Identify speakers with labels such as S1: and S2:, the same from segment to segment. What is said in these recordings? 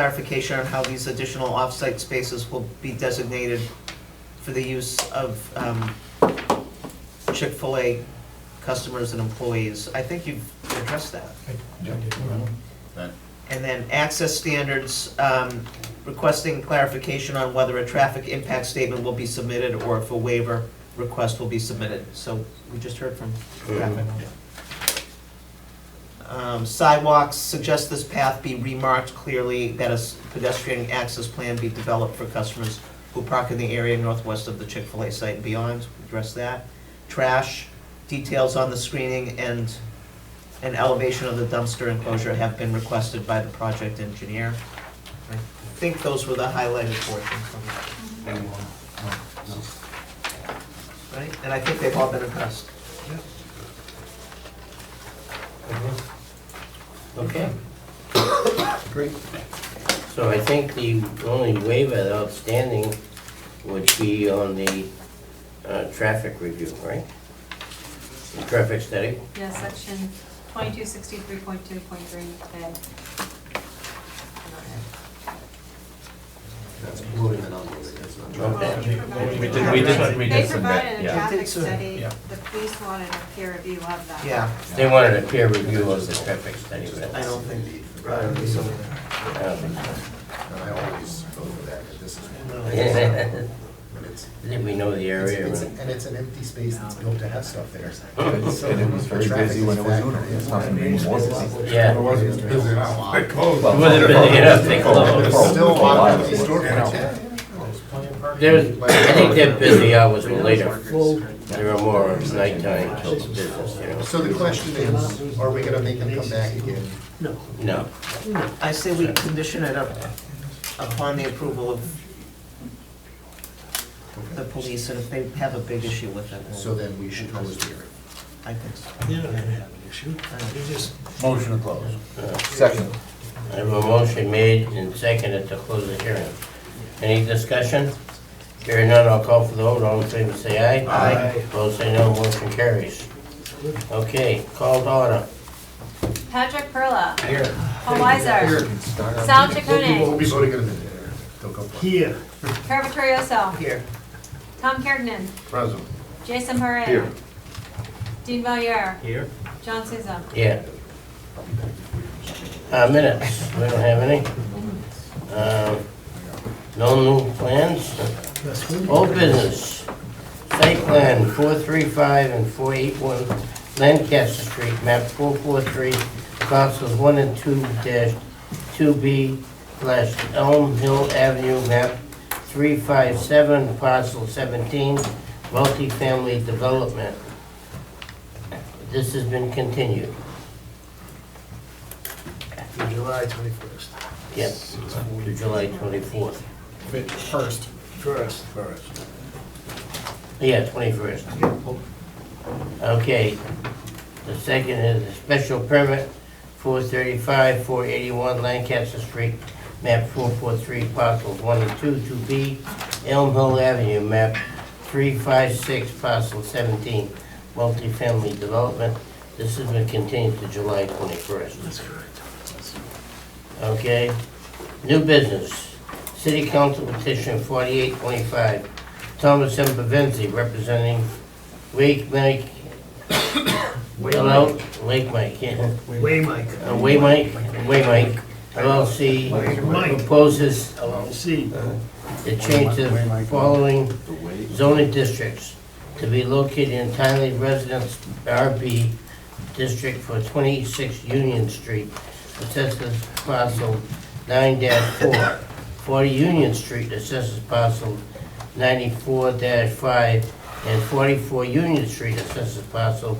S1: clarification on how these additional off-site spaces will be designated for the use of um, Chick-fil-A customers and employees. I think you've addressed that.
S2: That-
S1: And then access standards, um, requesting clarification on whether a traffic impact statement will be submitted or if a waiver request will be submitted. So we just heard from traffic. Um, Sidewalks, suggest this path be remarked clearly, that a s- pedestrian access plan be developed for customers who park in the area northwest of the Chick-fil-A site and beyond, address that. Trash, details on the screening and, and elevation of the dumpster enclosure have been requested by the project engineer. I think those were the highlighted portions from that, right? And I think they've all been addressed.
S3: Okay,
S4: Great.
S3: so I think the only waiver outstanding would be on the uh, traffic review, right? The traffic study?
S5: Yeah, section twenty-two sixty-three point two point three A.
S4: That's loading and unloading, that's not
S3: Okay.
S2: We did- we did- we did
S5: They
S2: submit,
S5: provided a
S2: yeah.
S1: We did
S5: traffic
S1: submit,
S5: study,
S4: yeah.
S5: the police wanted a peer review of that.
S1: Yeah,
S3: They wanted a peer review of the traffic study, right?
S1: I don't think,
S3: I don't think so.
S4: And I always go for that, but this is. But it's,
S3: Did we know the
S4: it's-
S3: area?
S4: it's-
S3: and-
S4: and it's an empty space that's built to have stuff there. So,
S6: And it was very
S4: traffic
S6: busy when it was
S4: is
S6: Uno.
S4: factored in.
S6: It's not gonna be any more busy.
S3: Yeah.
S6: It wasn't busy enough. They closed.
S3: It wasn't busy enough, they
S4: There's
S3: closed.
S4: still a lot of empty storage.
S3: There's, I think their busy hours were later. They were more nighttime till the business,
S4: So the question is, are we gonna make them come back again?
S3: you know? No.
S1: I say we condition it up upon the approval of the police, and if they have a big issue with it,
S4: So
S1: we'll-
S4: then we should close the hearing.
S1: I think so.
S7: You don't have an issue. You just
S6: Motion to close. Second.
S3: I have a motion made and seconded to close the hearing. Any discussion? Hearing none, I'll call for the vote, all in favor say aye.
S1: Aye.
S3: Opposed say no, motion carries. Okay, called order.
S5: Patrick Perla,
S4: Here.
S5: Paul Weiser, Sal
S4: We'll
S5: Chaconi,
S4: be voting in a minute. Don't go far.
S7: here.
S5: Carver Torioso,
S1: Here,
S5: Tom Kergnen,
S4: Present.
S5: Jason Parra,
S4: Here.
S5: Dean Valier,
S7: Here.
S5: John Souza.
S3: Yeah. Uh, minutes, we don't have any. Um, No new plans? Old business. Site plan 435 and 481 Lancaster Street, map 443, parcels 1 and 2 dash 2B slash Elm Hill Avenue, map 357, parcel 17, multifamily development. This has been continued.
S7: July twenty-first.
S3: Yep, to July 24th.
S7: First. First. First.
S3: Yeah, 21st. Okay. The second is a special permit, 435, 481 Lancaster Street, map 443, parcels 1 and 2, 2B, Elm Hill Avenue, map 356, parcel 17, multifamily development. This has been continued to July 21st.
S7: That's correct.
S3: Okay, new business, city council petition forty-eight twenty-five, Thomas M. Pavenzi representing Wake Mike, hello, Lake Mike, yeah,
S7: Way Mike.
S3: Uh, Way Mike, Way Mike, LLC
S7: Mike.
S3: proposes
S7: See,
S3: to change the following zoning districts to be located in entirely residence RB district for 26 Union Street, assessors parcel 9-4, 40 Union Street, assessors parcel 94-5, and 44 Union Street, assessors parcel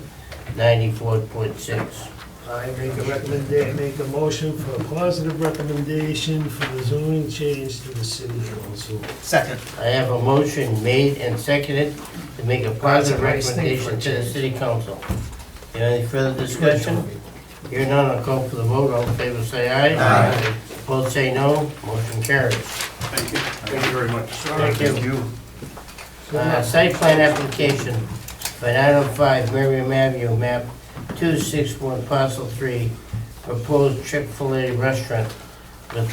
S3: 94.6.
S7: I make a recommendation, make a motion for a positive recommendation for the zoning change to the city council.
S1: second.
S3: I have a motion made and seconded to make a positive
S7: That's a nice thing for a
S3: recommendation to the city council. Any further discussion? Hearing none, I'll call for the vote, all in favor say aye. Aye. Both say no, motion carries.
S2: Thank you very much.
S3: Thank you. Uh, Site plan application for 905 Miriam Avenue, map 261, parcel 3, proposed Chick-fil-A restaurant